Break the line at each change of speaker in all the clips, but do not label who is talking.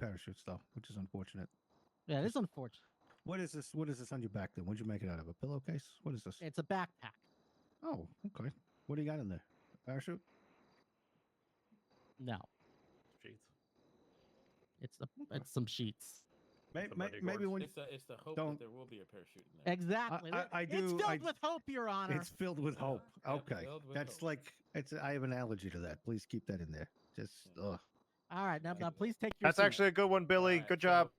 parachutes though, which is unfortunate.
Yeah, it's unfortunate.
What is this? What is this on your back then? What'd you make it out of? A pillowcase? What is this?
It's a backpack.
Oh, okay. What do you got in there? Parachute?
No,
Sheets.
it's a, it's some sheets.
May,
It's a
may,
Monday
maybe
gorge.
when
it's the it's the hope
don't-
that there will be a parachute in there.
Exactly.
I-
There-
I
It's
do-
filled
I-
with hope, Your Honor.
it's filled with hope.
Yeah,
Okay,
filled with
that's
hope.
like it's. I have an allergy to that. Please keep that in there. Just
Yeah.
ugh.
All right, now,
Okay.
now please take your.
That's
seat.
actually a good one, Billy.
Alright,
Good
so-
job.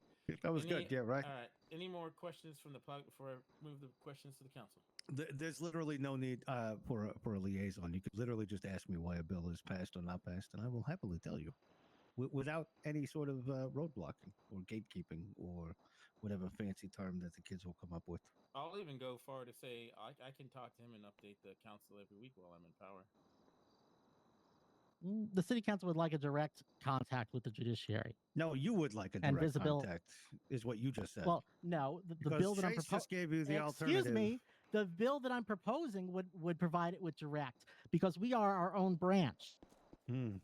That was good.
Any-
Yeah, right.
All right. Any more questions from the public before I move the questions to the council?
Th- There's literally no need uh, for a, for a liaison. You could literally just ask me why a bill is passed or not passed, and I will happily tell you, w- without any sort of uh, roadblocking or gatekeeping or whatever fancy term that the kids will come up with.
I'll even go far to say I, I can talk to him and update the council every week while I'm in power.
Mm, the city council would like a direct contact with the judiciary.
No, you would like a
And
direct
visibil-
contact, is what you just said.
Well, no, the, the
Because
bill that I'm
Chase
proposing.
just gave you the
Excuse
alternative.
me. The bill that I'm proposing would would provide it with direct because we are our own branch.
Hmm.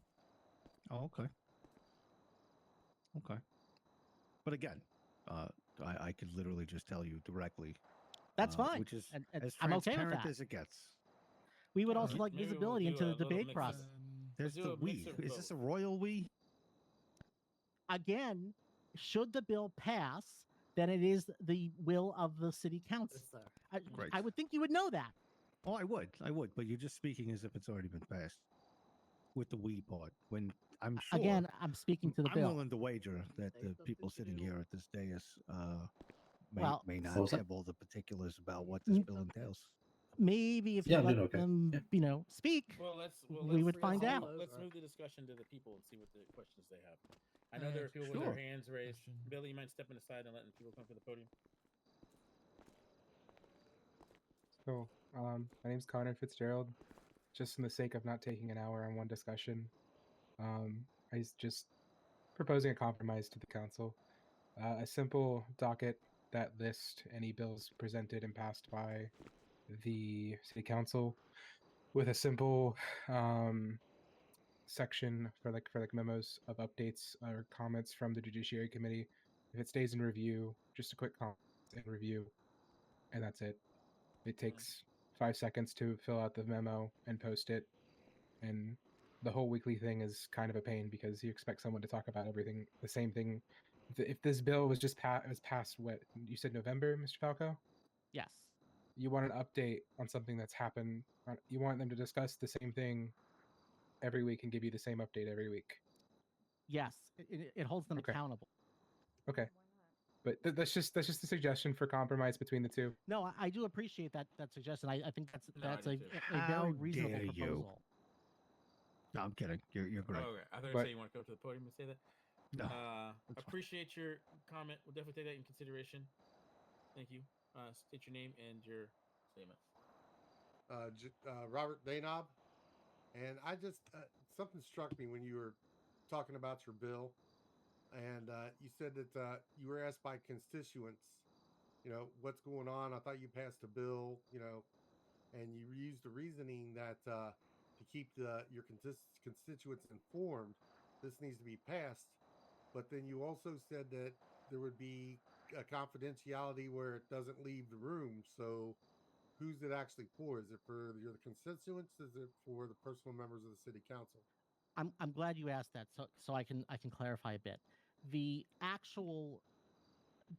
Oh, okay. Okay. But again, uh, I, I could literally just tell you directly.
That's
uh,
fine.
Which is
and, and
as
I'm okay with
transparent
that.
as it gets.
We
uh,
would also like
Alright. Maybe we'll
visibility
do
into
a
the
little
debate
mix
process.
of-
There's
do
the
a
we.
mix of
Is this a
both.
royal we?
Again, should the bill pass, then it is the will of the city council. I, I
Great.
would think you would know that.
Oh, I would. I would. But you're just speaking as if it's already been passed with the we part. When I'm sure.
Again, I'm speaking to the
I'm
bill.
willing to wager that the people sitting here at this dais uh, may,
Well-
may not
What was that?
have all the particulars about what this
Mm.
bill entails.
Maybe if
Yeah,
you
no,
let
no, okay.
them,
Yeah.
you know, speak.
Well, let's. Well,
We
let's-
would find
let's-
out.
Let's move the discussion to the people and see what the questions they have. I know there are people with
Sure.
their hands raised.
Question.
Billy, you mind stepping aside and letting people come to the podium?
So, um, my name's Connor Fitzgerald. Just in the sake of not taking an hour on one discussion, um, I was just proposing a compromise to the council. Uh, a simple docket that lists any bills presented and passed by the city council with a simple um, section for like for like memos of updates or comments from the judiciary committee. If it stays in review, just a quick comment and review, and that's it. It takes five seconds to fill out the memo and post it. And the whole weekly thing is kind of a pain because you expect someone to talk about everything the same thing. Th- If this bill was just pa- was passed, what you said November, Mr. Falco,
Yes.
you want an update on something that's happened. on- You want them to discuss the same thing every week and give you the same update every week.
Yes. It, it, it holds them
Okay.
accountable.
But th- that's just that's just a suggestion for compromise between the two.
No, I, I do appreciate that that suggestion. I, I think that's
No, I
that's
do
a,
too.
a a
How
very reasonable
dare you.
proposal.
No, I'm kidding. You're, you're great.
okay. I thought you
But-
said you want to go to the podium and say that.
Oh,
No.
Oh, Uh,
that's fine.
appreciate your comment. We'll definitely take that in consideration. Thank you. Uh, state your name and your statement.
uh, J- uh, Robert Danob, and I just uh, something struck me when you were talking about your bill, and uh, you said that uh, you were asked by constituents, you know, what's going on. I thought you passed a bill, you know, and you used the reasoning that uh, to keep the your contis- constituents informed, this needs to be passed. But then you also said that there would be a confidentiality where it doesn't leave the room, so who's it actually for? Is it for your constituents? Is it for the personal members of the city council?
I'm I'm glad you asked that so so I can I can clarify a bit. The actual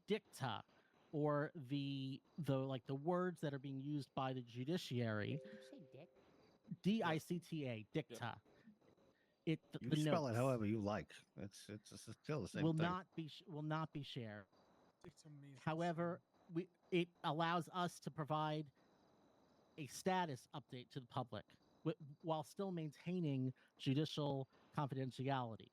dicta or the the like the words that are being used by the judiciary D I C T A dicta. It th-
You
the
can spell it
notes
however you like. It's it's, it's still the same
will
thing.
not be sh- will not be shared. However, we it allows us to provide a status update to the public wi- while still maintaining judicial confidentiality.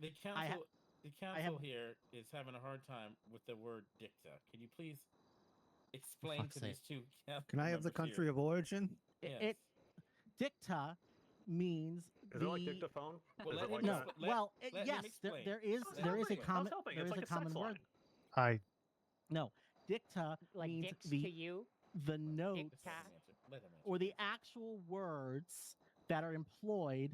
The
I ha-
council, the
I
council
have-
here is having a hard time with the word dicta. Can you please explain
fuck's
to these two? council
Can I have the
members
country
here?
of origin?
I-
Yes.
It dicta means
Is
the
it like dictaphone?
Well,
Is
let
it
him
like
no.
that?
expl- let-
well, it-
let him
yes, there,
explain.
there is
Let
there
him
is a
explain.
common
helping.
there is
It's like
a
a sex
common
line.
word. No, dicta means
dicks
the
to you.
the
Let him
notes
answer. Let him answer.
or the actual words that are employed